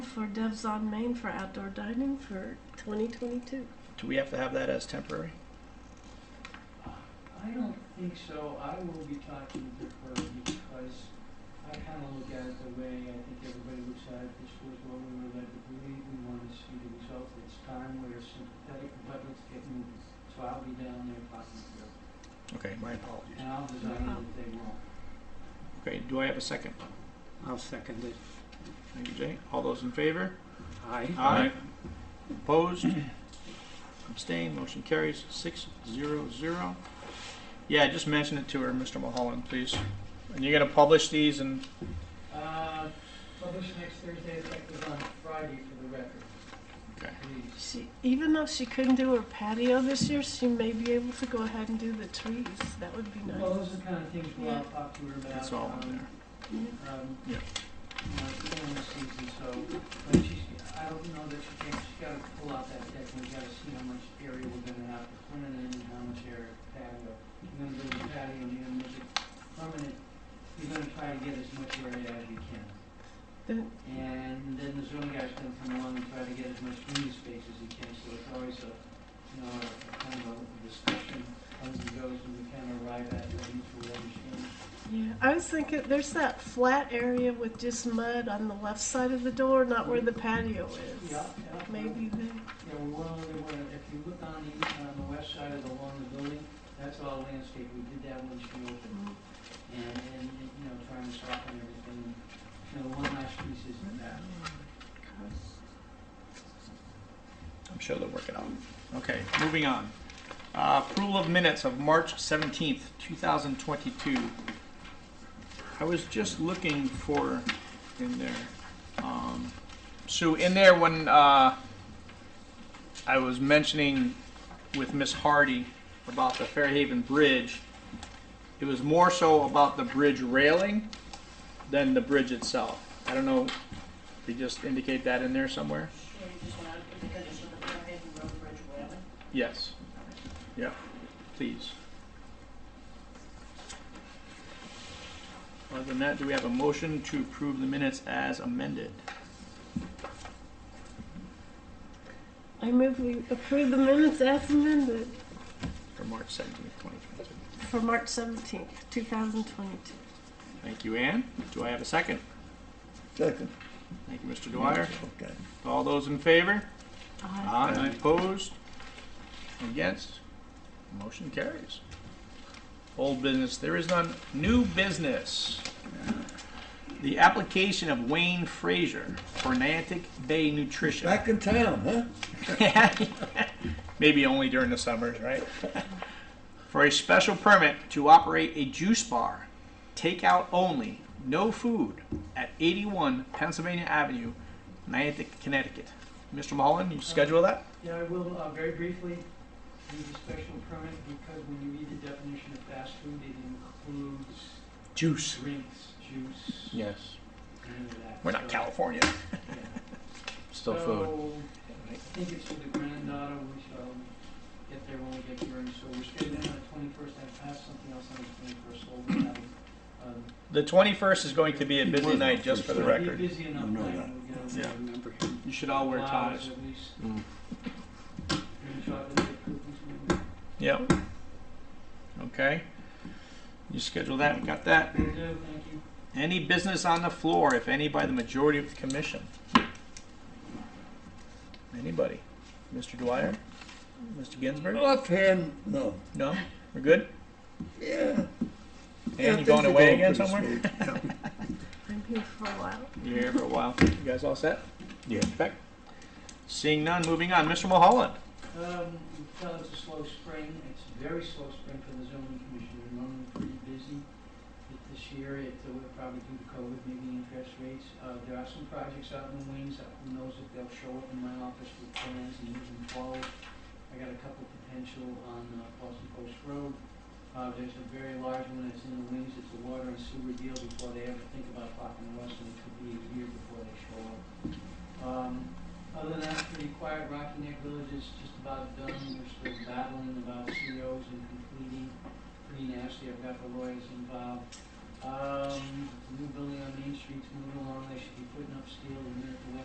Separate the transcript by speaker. Speaker 1: for Devs on Main for outdoor dining for 2022.
Speaker 2: Do we have to have that as temporary?
Speaker 3: I don't think so. I will be talking to her because I kind of look at it the way I think everybody looks at it. This was what we were led to believe. We wanted to see the results. It's time. We're sympathetic, but let's get moving. So I'll be down there talking to her.
Speaker 2: Okay, my apologies.
Speaker 3: And I'll design it if they want.
Speaker 2: Okay, do I have a second?
Speaker 4: I'll second it.
Speaker 2: Thank you, Jay. All those in favor?
Speaker 4: Aye.
Speaker 2: Opposed? Abstained, motion carries six zero zero. Yeah, just mention it to her, Mr. Mulholland, please. And you're gonna publish these and,
Speaker 3: Uh, publish next Thursday, effective on Friday for the record,
Speaker 2: okay,
Speaker 3: please.
Speaker 1: She, even though she couldn't do her patio this year, she may be able to go ahead and do the trees. That would be
Speaker 3: Well,
Speaker 1: nice.
Speaker 3: those are the kind of things we'll I'll talk to her about.
Speaker 2: that's all
Speaker 3: um,
Speaker 2: in there.
Speaker 3: um,
Speaker 2: Yeah.
Speaker 3: my family season, so, but she's, I don't know that she can, she's gotta pull out that deck, and we gotta see how much area we're gonna have to put in and how much area patio. You're gonna build a patio, and you're gonna make it permanent, you're gonna try to get as much area as you can.
Speaker 1: Then
Speaker 3: And then the zoning guy's gonna come along and try to get as much green space as he can, so it's always a, you know, a a kind of a discussion, comes and goes, and we kind of arrive at, what mutual understanding.
Speaker 1: Yeah, I was thinking there's that flat area with just mud on the left side of the door, not where the patio Oh, is.
Speaker 3: Yeah, yeah.
Speaker 1: Maybe there.
Speaker 3: Yeah, we went over there, when- if you look on the, on the west side of the, along the building, that's all landscape, we did that when she opened, and, and, you know, trying to soften everything. You know, the one last piece is in that.
Speaker 2: I'm sure they'll work it out. Okay, moving on. Uh, Approval of minutes of March 17th, 2022. I was just looking for in there. um, Sue, in there when uh, I was mentioning with Miss Hardy about the Fairhaven Bridge, it was more so about the bridge railing than the bridge itself. I don't know, they just indicate that in there somewhere?
Speaker 5: Yeah, you just want to, because it's on the Fairhaven Road Bridge, whatever.
Speaker 2: Yes. Yeah, please. Other than that, do we have a motion to approve the minutes as amended?
Speaker 1: I move we approve the minutes as amended
Speaker 2: For March seventeenth, twenty twenty-two.
Speaker 1: for March 17th, 2022.
Speaker 2: Thank you, Ann. Do I have a second?
Speaker 6: Second.
Speaker 2: Thank you, Mr. Dwyer.
Speaker 6: Okay.
Speaker 2: All those in favor?
Speaker 1: Aye.
Speaker 3: Uh-huh.
Speaker 2: Aye. Opposed? Against? Motion carries. Old business, there is none. New business. The application of Wayne Frazier for Niantic Bay Nutrition.
Speaker 6: Back in town, huh?
Speaker 2: Maybe only during the summers, right? For a special permit to operate a juice bar, takeout only, no food, at 81 Pennsylvania Avenue, Niantic, Connecticut. Mr. Mullen, you schedule that?
Speaker 3: Yeah, I will, uh, very briefly, need a special permit, because when you read the definition of fast food, it includes
Speaker 2: Juice.
Speaker 3: drinks, juice,
Speaker 2: Yes.
Speaker 3: any of that.
Speaker 2: We're not
Speaker 3: So,
Speaker 2: California.
Speaker 3: yeah.
Speaker 7: Still
Speaker 3: so,
Speaker 7: food.
Speaker 3: I think it's with the granddaughter, we shall get there when we get here, and so we're scheduled on the twenty-first, I passed something else on the twenty-first, so we'll have, um,
Speaker 2: The 21st is going to be a busy night, just for the
Speaker 3: it'll be a
Speaker 2: record.
Speaker 3: busy enough
Speaker 6: No,
Speaker 3: night,
Speaker 6: no.
Speaker 3: we'll get
Speaker 2: Yeah.
Speaker 3: over
Speaker 4: Remember
Speaker 2: You should all wear
Speaker 3: flowers
Speaker 2: ties.
Speaker 3: at least.
Speaker 7: Mm.
Speaker 3: Maybe chocolate chip cookies, maybe.
Speaker 2: Yep. Okay. You schedule that, we got that.
Speaker 3: Will do, thank you.
Speaker 2: Any business on the floor, if any, by the majority of the commission? Anybody? Mr. Dwyer? Mr. Ginsburg?
Speaker 6: Offhand, no.
Speaker 2: No? We're good?
Speaker 6: Yeah. Yeah,
Speaker 2: And you
Speaker 6: things
Speaker 2: going
Speaker 6: are
Speaker 2: away again
Speaker 6: pretty
Speaker 2: somewhere?
Speaker 6: smooth. Yeah.
Speaker 1: I'm here for a while.
Speaker 2: You're here for a while. You guys all set?
Speaker 6: Yeah.
Speaker 2: Beck? Seeing none, moving on. Mr. Mulholland?
Speaker 3: Um, you can tell it's a slow spring, it's a very slow spring for the zoning commission, we're normally pretty busy. But This year, it, uh, we're probably due to COVID, maybe interest rates, uh, there are some projects out in the wings, uh, who knows if they'll show up in my office with plans and moving forward. I got a couple potential on, uh, Boston Post Road, uh, there's a very large one that's in the wings, it's a water and sewer deal before they ever think about talking to us, and it could be a year before they show up. Um, other than that, pretty quiet. Rocky Neck Village is just about done. We're still battling about COs and completing. Pretty nasty. I've got the lawyers involved. Um, new building on Main Street's moving along. They should be putting up steel in the minute the weather